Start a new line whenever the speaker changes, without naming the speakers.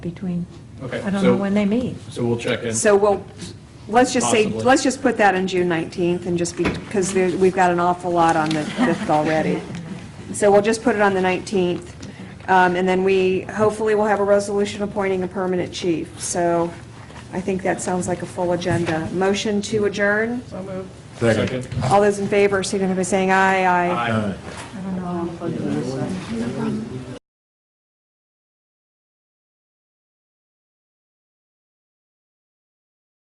between,
Okay,
I don't know
so-
when they meet.
So we'll check in.
So we'll, let's just say,
Possibly.
let's just put that on June 19th and just be, because there, we've got an awful lot on the 5th already. So we'll just put it on the 19th, um, and then we, hopefully we'll have a resolution appointing a permanent chief. So I think that sounds like a full agenda. Motion to adjourn?
Second.
All those in favor, signify by saying aye, aye.
Aye.